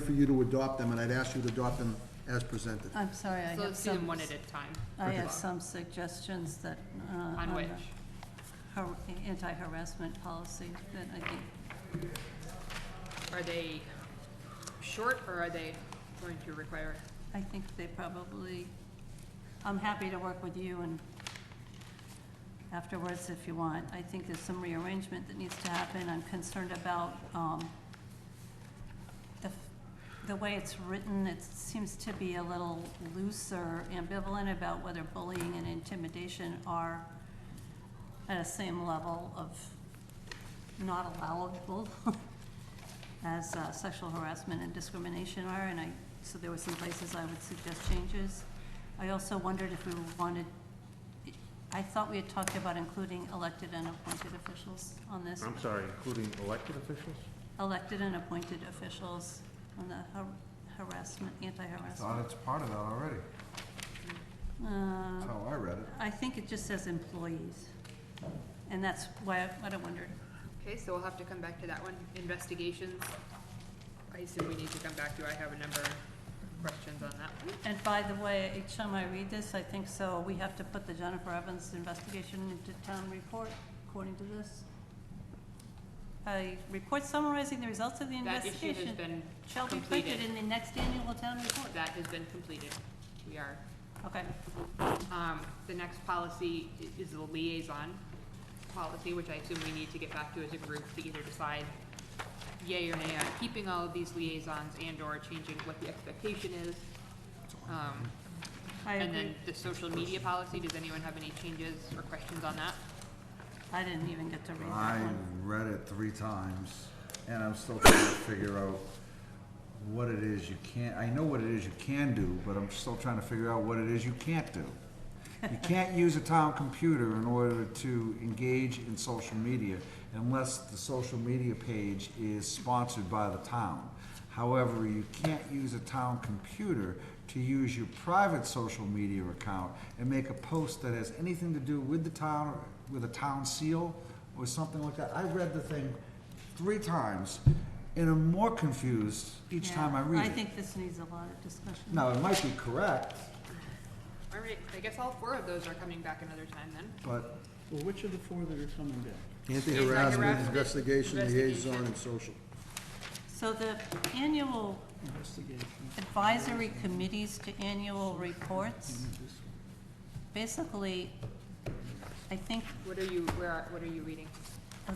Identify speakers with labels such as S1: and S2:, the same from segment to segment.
S1: for you to adopt them, and I'd ask you to adopt them as presented.
S2: I'm sorry, I
S3: So
S2: have
S3: let's do them
S2: some,
S3: one at a time.
S2: I have
S1: Okay.
S2: some suggestions that, uh,
S3: On
S2: the
S3: which?
S2: har- Anti-harassment policy that I think,
S3: Are they short or are they going to require?
S2: I think they probably, I'm happy to work with you and afterwards if you want. I think there's some rearrangement that needs to happen. I'm concerned about, um, the, f- the way it's written, it seems to be a little looser, ambivalent about whether bullying and intimidation are at a same level of not allowable as uh, sexual harassment and discrimination are, and I, so there were some places I would suggest changes. I also wondered if we wanted, I thought we had talked about including elected and appointed officials on this
S4: I'm sorry, including elected officials?
S2: elected and appointed officials on the har- harassment,
S5: Thought
S2: anti-harassment.
S5: it's part of that already. That's
S2: Uh,
S5: how I read it.
S2: I think it just says employees, and that's why, I- what I wondered.
S3: Okay, so we'll have to come back to that one. Investigations. I assume we need to come back to, I have a number of questions on that one.
S2: And by the way, each time I read this, I think so, we have to put the Jennifer Evans investigation into town report, according to this. A report summarizing the results of the
S3: That issue has
S2: investigation
S3: been
S2: shall be
S3: completed.
S2: printed in the next annual town report.
S3: That has been completed. We are.
S2: Okay,
S3: Um, the next policy i- is the liaison policy, which I assume we need to get back to as a group to either decide yay or nay on keeping all of these liaisons and/or changing what the expectation is. Um,
S2: I
S3: And
S2: agree.
S3: then the social media policy, does anyone have any changes or questions on that?
S2: I didn't even get to read
S5: I
S2: that one.
S5: read it three times, and I'm still trying to figure out what it is you can't, I know what it is you can do, but I'm still trying to figure out what it is you can't do. You can't use a town computer in order to engage in social media unless the social media page is sponsored by the town. However, you can't use a town computer to use your private social media account and make a post that has anything to do with the town, with a town seal or something like that. I read the thing three times and am more confused each
S2: Yeah,
S5: time I read it.
S2: I think this needs a lot of discussion.
S5: Now, it might be correct,
S3: All right, I guess all four of those are coming back another time then.
S5: but
S6: Well, which of the four that are coming back?
S1: Anti-harassment,
S3: Anti-harassment,
S1: investigation, liaison,
S3: investigation.
S1: and social.
S2: So the annual
S6: Investigation.
S2: advisory committees to annual reports, basically, I think
S3: What are you, where, are- what are you reading?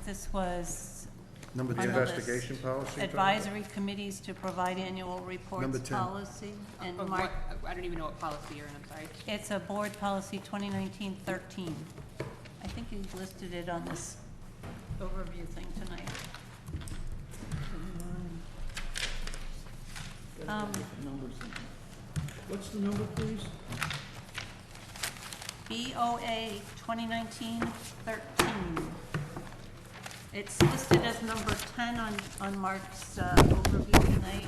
S2: this was
S1: Number
S2: On
S1: ten.
S2: the
S4: Investigation
S2: list.
S4: policy? Tom?
S2: advisory committees to provide annual
S1: Number
S2: reports
S1: 10.
S2: policy. And
S3: Of
S2: Mark,
S3: Uh, what- I don't even know what policy you're in, I'm sorry.
S2: it's a board policy 2019-13. I think you listed it on this overview thing tonight. Um,
S6: Numbers in there. What's the number, please?
S2: BOA 2019-13. It's listed as number 10 on, on Mark's uh, overview tonight,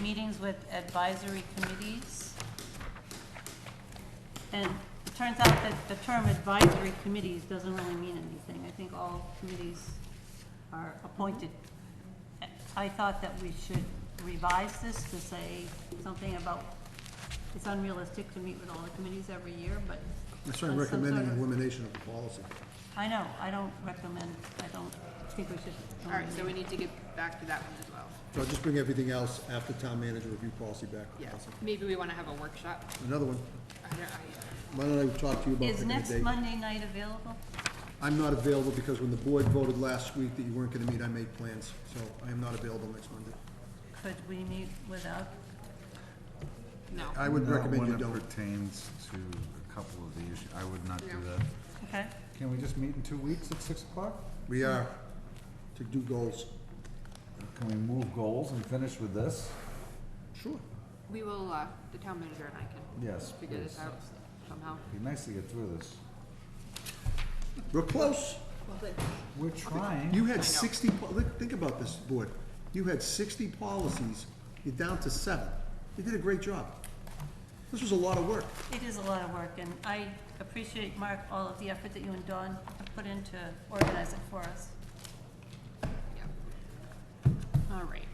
S2: meetings with advisory committees. And it turns out that the term advisory committees doesn't really mean anything. I think all committees are appointed. I thought that we should revise this to say something about, it's unrealistic to meet with all the committees every year, but.
S1: That's why I'm
S2: on some sort
S1: recommending
S2: of-
S1: elimination of the policy.
S2: I know, I don't recommend, I don't think we should.
S3: All right, so we need to get back to that one as well.
S1: So I'll just bring everything else after town manager review policy back.
S3: Yeah, maybe we want to have a workshop.
S1: Another one,
S3: I uh, don't- I-
S1: why don't I talk to you about
S2: Is
S1: picking a
S2: next
S1: date?
S2: Monday night available?
S1: I'm not available because when the board voted last week that you weren't gonna meet, I made plans, so I am not available next Monday.
S2: Could we meet without?
S3: No.
S1: I would
S5: not
S1: recommend you
S5: When
S1: don't.
S5: it pertains to a couple of the issues, I would not do
S3: Yeah.
S5: that.
S2: Okay,
S5: Can we just meet in two weeks at six o'clock?
S1: We are to do goals.
S5: Can we move goals and finish with this?
S1: Sure.
S3: We will, uh, the town manager and I can
S5: Yes,
S3: figure this
S5: please.
S3: out somehow.
S5: Be nice to get through this.
S1: We're close.
S5: We're trying.
S1: You had sixty, po- look, think about this, board. You had sixty policies, you're down to seven. You did a great job. This was a lot of work.
S2: it is a lot of work, and I appreciate, Mark, all of the effort that you and Dawn have put into organizing for us.
S3: Yeah. All right.